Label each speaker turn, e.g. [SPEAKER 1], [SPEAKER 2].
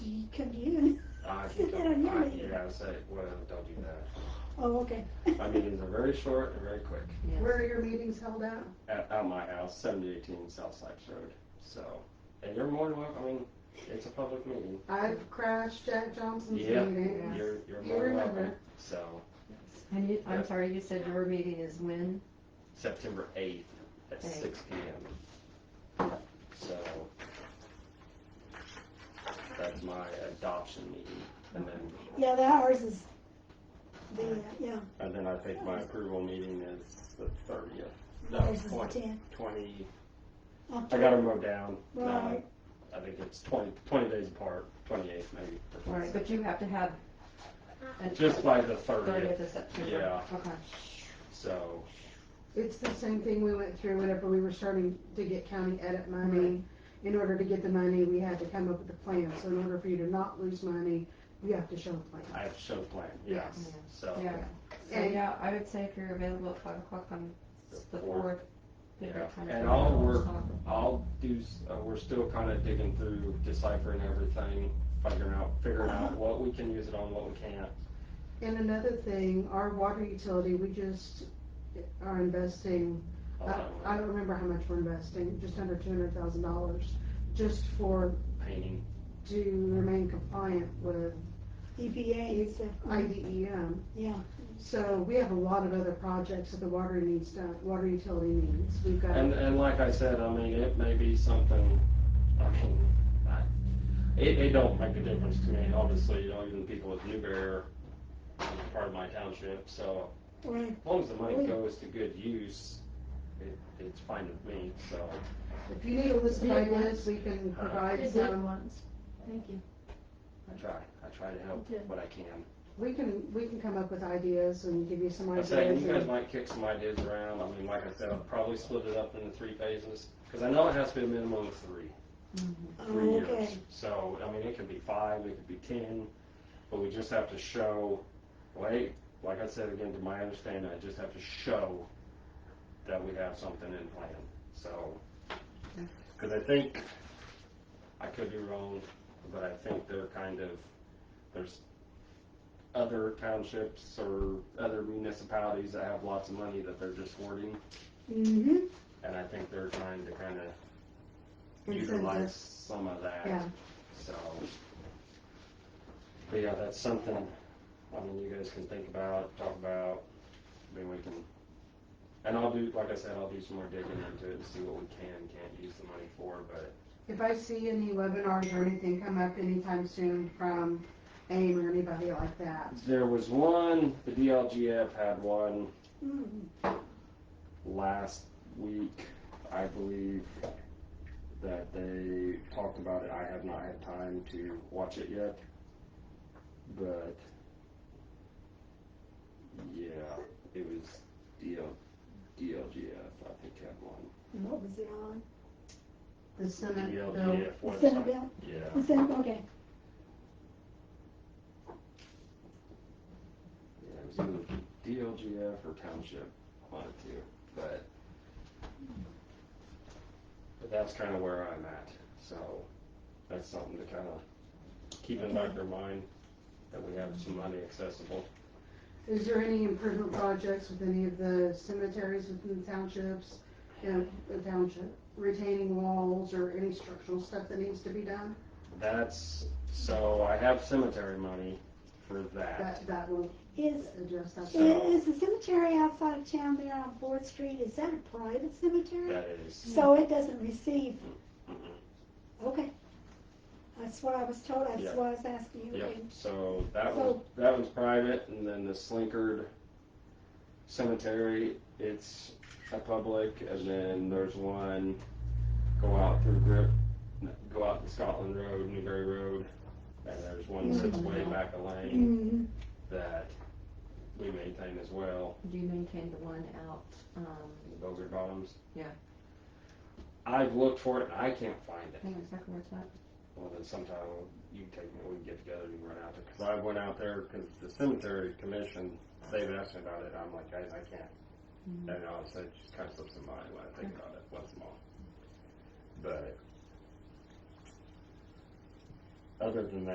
[SPEAKER 1] Uh, and say, well, don't do that.
[SPEAKER 2] Oh, okay.
[SPEAKER 1] My meetings are very short and very quick.
[SPEAKER 2] Where are your meetings held at?
[SPEAKER 1] At, at my house, seventy eighteen South Sykes Road. So, and you're more than welcome, I mean, it's a public meeting.
[SPEAKER 2] I've crashed Jack
[SPEAKER 3] Mm-hmm.
[SPEAKER 2] Johnson's
[SPEAKER 1] Yeah,
[SPEAKER 2] meeting.
[SPEAKER 1] you're, you're
[SPEAKER 2] You
[SPEAKER 1] more than welcome.
[SPEAKER 2] remember.
[SPEAKER 1] So,
[SPEAKER 3] And you,
[SPEAKER 1] Yeah.
[SPEAKER 3] I'm sorry, you said your meeting is when?
[SPEAKER 1] September eighth at
[SPEAKER 3] Eight.
[SPEAKER 1] six P M. So, that's my adoption meeting. And then,
[SPEAKER 4] Yeah, the hours is the, uh, yeah,
[SPEAKER 1] and then I think my approval meeting is the thirtieth. No,
[SPEAKER 4] ours is the
[SPEAKER 1] twenty,
[SPEAKER 4] ten.
[SPEAKER 1] twenty, I
[SPEAKER 4] October.
[SPEAKER 1] got them wrote down. No,
[SPEAKER 4] Right.
[SPEAKER 1] I think it's twenty, twenty days apart, twenty-eighth maybe. or
[SPEAKER 3] Right, but you have to have. a-
[SPEAKER 1] Just by the
[SPEAKER 3] Thirtieth
[SPEAKER 1] thirtieth,
[SPEAKER 3] of September.
[SPEAKER 1] Yeah.
[SPEAKER 3] Okay.
[SPEAKER 1] so,
[SPEAKER 2] It's the same thing we went through whenever we were starting to get county edit money. In order to get the money, we had to come up with a plan. So in order for you to not lose money, you have to show a plan.
[SPEAKER 1] I have show plan, yes, so.
[SPEAKER 3] Yeah, so
[SPEAKER 2] And-
[SPEAKER 3] yeah, I would say if you're available at five o'clock on the fourth. the
[SPEAKER 1] Yeah,
[SPEAKER 3] right time to
[SPEAKER 1] and
[SPEAKER 3] come
[SPEAKER 1] all
[SPEAKER 3] in.
[SPEAKER 1] we're, all do, s- uh, we're still kinda digging through deciphering everything, figuring out, figuring
[SPEAKER 3] Uh-huh.
[SPEAKER 1] out what we can use it on, what we can't.
[SPEAKER 2] And another thing, our water utility, we just are investing
[SPEAKER 3] Uh,
[SPEAKER 1] all
[SPEAKER 2] I
[SPEAKER 1] that
[SPEAKER 2] I don't remember how much we're investing, just under two hundred thousand dollars, just for,
[SPEAKER 1] Painting,
[SPEAKER 2] to remain compliant with
[SPEAKER 4] E
[SPEAKER 2] E
[SPEAKER 4] EPA and stuff.
[SPEAKER 2] IDEM.
[SPEAKER 4] Yeah.
[SPEAKER 2] So we have a lot of other projects that the water needs done, water utility needs, we've got.
[SPEAKER 1] and, uh, and like I said, I mean, it may be something, I mean, I, it, it don't make a difference to me, obviously, you know, even people with Newberry are part of my township, so
[SPEAKER 4] Right.
[SPEAKER 1] as long as the money goes to good use, it, it's fine with me, so.
[SPEAKER 2] If you need a list of
[SPEAKER 5] Did it
[SPEAKER 2] ideas, we can provide
[SPEAKER 5] Did that
[SPEAKER 2] some,
[SPEAKER 5] once. Thank you.
[SPEAKER 1] I try, I try to help
[SPEAKER 5] Okay.
[SPEAKER 1] what I can.
[SPEAKER 2] we can, we can come up with ideas and give you some
[SPEAKER 1] I
[SPEAKER 2] ideas.
[SPEAKER 1] say, you guys
[SPEAKER 2] and-
[SPEAKER 1] might kick some ideas around, I mean, like I said, I'll probably split it up into three phases, because I know it has to be a minimum of three, three
[SPEAKER 4] Oh,
[SPEAKER 1] years.
[SPEAKER 4] okay.
[SPEAKER 1] So, I mean, it could be five, it could be ten, but we just have to show, wait, like I said again, to my understanding, I just have to show that we have something in plan, so. Because I think, I could be wrong, but I think they're kind of, there's other townships or other municipalities that have lots of money that they're just hoarding,
[SPEAKER 4] Mm-hmm.
[SPEAKER 1] and I think they're trying to kind of
[SPEAKER 2] Incentive.
[SPEAKER 1] utilize some of that.
[SPEAKER 2] Yeah.
[SPEAKER 1] So, but yeah, that's something, I mean, you guys can think about, talk about, I mean, we can, and I'll do, like I said, I'll do some more digging into it and see what we can, and can't use the money for, but
[SPEAKER 2] If I see any webinars or anything come up anytime soon from AIM or anybody like that,
[SPEAKER 1] there was one, the DLGF had one
[SPEAKER 4] Mm.
[SPEAKER 1] last week, I believe, that they talked about it. I have not had time to watch it yet, but yeah, it was DL, DLGF. I think had one.
[SPEAKER 4] And What was it on?
[SPEAKER 2] the Senate bill.
[SPEAKER 1] DLGF
[SPEAKER 4] The
[SPEAKER 1] website.
[SPEAKER 4] Senate bill?
[SPEAKER 1] Yeah,
[SPEAKER 4] The Senate, okay.
[SPEAKER 1] yeah, it was either DLGF or township, one of the two, but. But that's kind of where I'm at, so that's something to kind of keep in back of your mind, that we have some money accessible.
[SPEAKER 2] Is there any improvement projects with any of the cemeteries within the townships? You know, the township retaining walls or any structural stuff that needs to be done?
[SPEAKER 1] That's, so I have cemetery money for that.
[SPEAKER 2] That, that will
[SPEAKER 4] Is,
[SPEAKER 2] address that.
[SPEAKER 1] So-
[SPEAKER 4] is the cemetery outside of town there on Fourth Street, is that a private cemetery?
[SPEAKER 1] That is,
[SPEAKER 4] So it doesn't receive,
[SPEAKER 1] mhm.
[SPEAKER 4] okay. That's what I was told,
[SPEAKER 1] Yeah.
[SPEAKER 4] that's what I was asking you.
[SPEAKER 1] yep,
[SPEAKER 4] okay.
[SPEAKER 1] so that was, that was private, and then the Slinkard Cemetery, it's a public, and then there's one go out through Grip, go out to Scotland Road, Newberry Road, and there's one that's way back a lane.
[SPEAKER 4] Mhm.
[SPEAKER 1] that we maintain as well,
[SPEAKER 3] Do you maintain the one out, um,
[SPEAKER 1] those are bottoms.
[SPEAKER 3] Yeah.
[SPEAKER 1] I've looked for it, and I can't find it.
[SPEAKER 3] hang on a second, where's that?
[SPEAKER 1] Well, then sometime you take me, we can get together and run out there, because I went out there, because the cemetery commission, they've asked me about it, and I'm like, guys, I can't. And honestly, it just kind of slips in my mind when I think about it once in a while. But other than that.